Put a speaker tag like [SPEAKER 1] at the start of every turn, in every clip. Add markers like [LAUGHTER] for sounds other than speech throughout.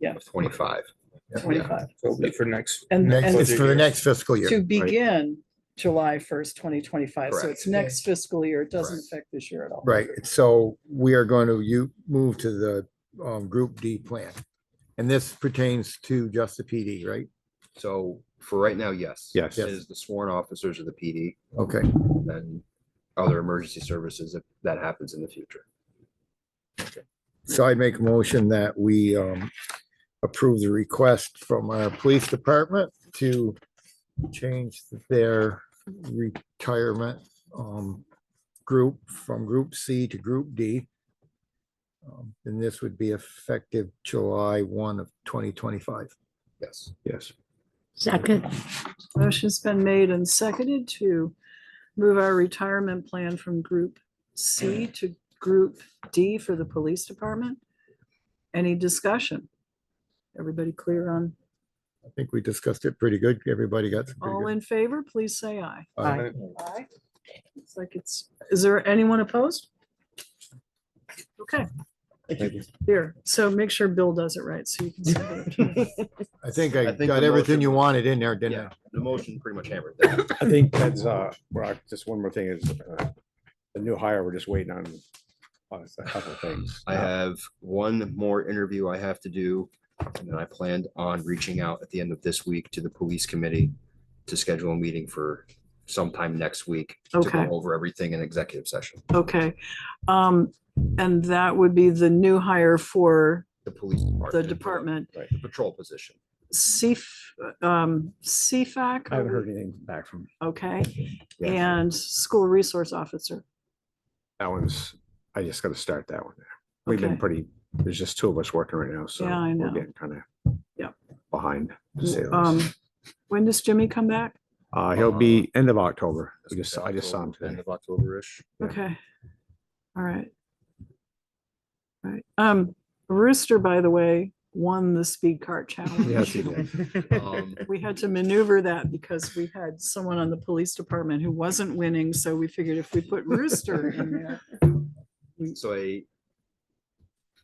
[SPEAKER 1] Yeah.
[SPEAKER 2] Twenty-five.
[SPEAKER 1] twenty-five.
[SPEAKER 3] So it'll be for next.
[SPEAKER 1] And,
[SPEAKER 4] Next,
[SPEAKER 1] and
[SPEAKER 4] it's for the next fiscal
[SPEAKER 1] to
[SPEAKER 4] year.
[SPEAKER 1] begin July first, twenty twenty-five. So
[SPEAKER 2] Correct.
[SPEAKER 1] it's next fiscal year. It doesn't
[SPEAKER 2] Correct.
[SPEAKER 1] affect this year at all.
[SPEAKER 4] Right, so we are going to, you move to the um Group D plan. And this pertains to just the PD, right?
[SPEAKER 2] So for right now, yes.
[SPEAKER 5] Yes.
[SPEAKER 2] It is the sworn officers of the PD
[SPEAKER 4] Okay,
[SPEAKER 2] and other emergency services if that happens in the future.
[SPEAKER 4] so I'd make a motion that we um approve the request from our police department to change their retirement um group from Group C to Group D. Um, And this would be effective July one of twenty twenty-five.
[SPEAKER 2] Yes.
[SPEAKER 5] Yes.
[SPEAKER 6] Second,
[SPEAKER 1] Motion's been made and seconded to move our retirement plan from Group C
[SPEAKER 4] Mm.
[SPEAKER 1] to Group D for the police department. Any discussion? Everybody clear on,
[SPEAKER 4] I think we discussed it pretty good. Everybody got. some pretty
[SPEAKER 1] all
[SPEAKER 4] good-
[SPEAKER 1] in favor, please say aye.
[SPEAKER 4] Aye.
[SPEAKER 1] Aye. It's like it's, is there anyone opposed? Okay. Here, so make sure Bill does it right, so you can send it. [LAUGHS]
[SPEAKER 4] I think
[SPEAKER 2] I
[SPEAKER 4] I
[SPEAKER 2] think
[SPEAKER 4] got
[SPEAKER 2] the
[SPEAKER 4] everything
[SPEAKER 2] motion
[SPEAKER 4] you
[SPEAKER 2] was-
[SPEAKER 4] wanted in there, didn't I?
[SPEAKER 2] Yeah, the motion pretty much hammered that.
[SPEAKER 5] I think that's, uh, Brock, just one more thing is, uh, the new hire, we're just waiting on, on a couple of things.
[SPEAKER 2] I have one more interview I have to do. And then I planned on reaching out at the end of this week to the police committee to schedule a meeting for sometime next week to
[SPEAKER 1] Okay.
[SPEAKER 2] go over everything in executive session.
[SPEAKER 1] Okay, um, and that would be the new hire for
[SPEAKER 2] The police department.
[SPEAKER 1] the department.
[SPEAKER 2] The patrol position.
[SPEAKER 1] CF, um, CFAC.
[SPEAKER 5] I haven't heard anything back from,
[SPEAKER 1] Okay,
[SPEAKER 2] Yeah.
[SPEAKER 1] and school resource officer.
[SPEAKER 5] that one's, I just gotta start that one. We've
[SPEAKER 1] Okay.
[SPEAKER 5] been pretty, there's just two of us working right now, so.
[SPEAKER 1] Yeah, I know.
[SPEAKER 5] Kind of.
[SPEAKER 1] Yep.
[SPEAKER 5] Behind, to say the least.
[SPEAKER 1] Um, when does Jimmy come back?
[SPEAKER 5] Uh, he'll be end of October. I
[SPEAKER 2] That's
[SPEAKER 5] just, I just saw him
[SPEAKER 2] October, End
[SPEAKER 5] today.
[SPEAKER 2] of
[SPEAKER 1] [LAUGHS]
[SPEAKER 2] October-ish.
[SPEAKER 5] Yeah.
[SPEAKER 1] Okay. All right. All right, um, Rooster, by the way, won the speed cart
[SPEAKER 5] Yes, he
[SPEAKER 1] challenge.
[SPEAKER 5] did.
[SPEAKER 2] Um,
[SPEAKER 1] We had to maneuver that because we had someone on the police department who wasn't winning, so we figured if we put Rooster in
[SPEAKER 5] [LAUGHS]
[SPEAKER 1] there.
[SPEAKER 2] So I,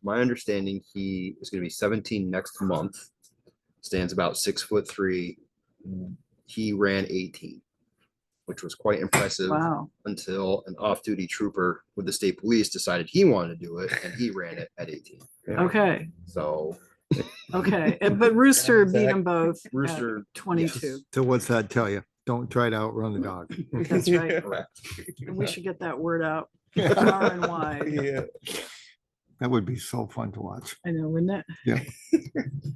[SPEAKER 2] my understanding, he is gonna be seventeen next month, stands about six foot three. He ran eighteen, which was quite impressive
[SPEAKER 1] Wow,
[SPEAKER 2] until an off-duty trooper with the state police decided he wanted to do it and he ran it at eighteen.
[SPEAKER 1] okay,
[SPEAKER 2] So
[SPEAKER 1] okay, and- but Rooster beat them both. at
[SPEAKER 2] Rooster,
[SPEAKER 1] Twenty-two,
[SPEAKER 4] So what's that tell you? Don't try to outrun the dog.
[SPEAKER 1] that's
[SPEAKER 5] [LAUGHS]
[SPEAKER 1] right.
[SPEAKER 2] correct.
[SPEAKER 1] And we should get that word out far and wide.
[SPEAKER 4] Mm. [LAUGHS] That would be so fun to watch.
[SPEAKER 1] I know, wouldn't it?
[SPEAKER 4] Yeah.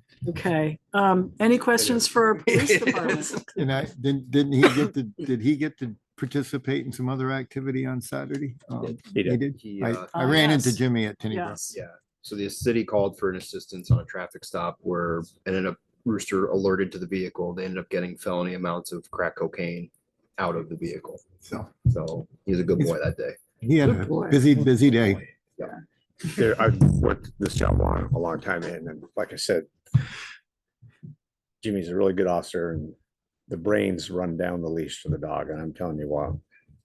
[SPEAKER 1] [LAUGHS] Okay, um, any questions for our police
[SPEAKER 5] [LAUGHS]
[SPEAKER 1] department?
[SPEAKER 4] And I, didn't, didn't he get to, [LAUGHS] did he get to participate in some other activity on Saturday? Um,
[SPEAKER 2] [LAUGHS]
[SPEAKER 5] He did.
[SPEAKER 2] He,
[SPEAKER 4] I,
[SPEAKER 2] uh,
[SPEAKER 4] I
[SPEAKER 1] Ah,
[SPEAKER 4] ran into
[SPEAKER 1] yes.
[SPEAKER 4] Jimmy at Tenny Brook.
[SPEAKER 1] Yes,
[SPEAKER 2] Yeah, so the city called for an assistance on a traffic stop where ended up Rooster alerted to the vehicle. They ended up getting felony amounts of crack cocaine out of the vehicle.
[SPEAKER 4] So
[SPEAKER 2] So he's a good boy that day.
[SPEAKER 4] he had
[SPEAKER 1] Good
[SPEAKER 4] a
[SPEAKER 1] boy.
[SPEAKER 4] busy, busy day.
[SPEAKER 5] There, I've worked this job a long, a long time and then, like I said, Jimmy's a really good officer and the brains run down the leash for the dog. And I'm telling you what,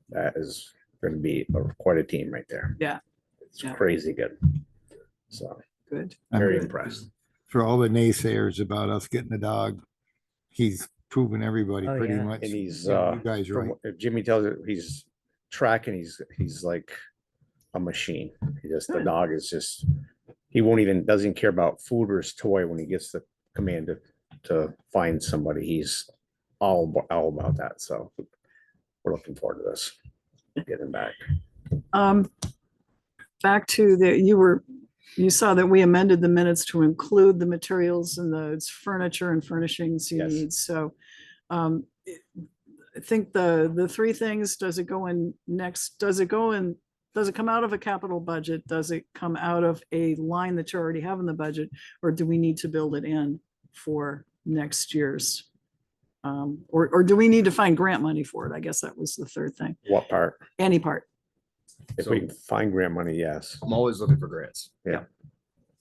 [SPEAKER 5] that is gonna be a- quite a team right there.
[SPEAKER 1] Yeah.
[SPEAKER 5] It's
[SPEAKER 1] Yeah.
[SPEAKER 5] crazy good. So
[SPEAKER 1] good.
[SPEAKER 4] I'm
[SPEAKER 5] very impressed.
[SPEAKER 4] For all the naysayers about us getting a dog, he's proven everybody
[SPEAKER 7] Oh,
[SPEAKER 4] pretty
[SPEAKER 7] yeah.
[SPEAKER 4] much.
[SPEAKER 5] And he's,
[SPEAKER 4] Yeah,
[SPEAKER 5] uh,
[SPEAKER 4] You guys are
[SPEAKER 5] From
[SPEAKER 4] right.
[SPEAKER 5] what- if Jimmy tells it, he's tracking, he's, he's like a machine. He just, the
[SPEAKER 1] Good.
[SPEAKER 5] dog is just, he won't even, doesn't care about food or his toy when he gets the command to, to find somebody. He's all, abo- all about that. So we're looking forward to this. Get him back.
[SPEAKER 1] Um, back to the, you were, you saw that we amended the minutes to include the materials and the furniture and furnishings you
[SPEAKER 5] Yes.
[SPEAKER 1] need, so. Um, it- I think the, the three things, does it go in next, does it go in, does it come out of a capital budget? Does it come out of a line that you already have in the budget? Or do we need to build it in for next year's? Um, or, or do we need to find grant money for it? I guess that was the third thing,
[SPEAKER 5] What part?
[SPEAKER 1] any part,
[SPEAKER 5] If we can find grant money, yes.
[SPEAKER 2] I'm always looking for grants.
[SPEAKER 1] okay.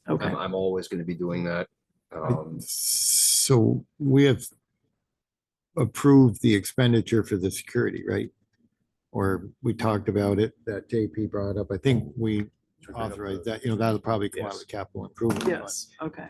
[SPEAKER 2] I'm, I'm always going to be doing that. Um,
[SPEAKER 4] So we have approved the expenditure for the security, right? Or we talked about it, that JP brought up. I think we authorized that, you know, that'll probably come out of the capital improvement. fund.
[SPEAKER 1] Yes, okay.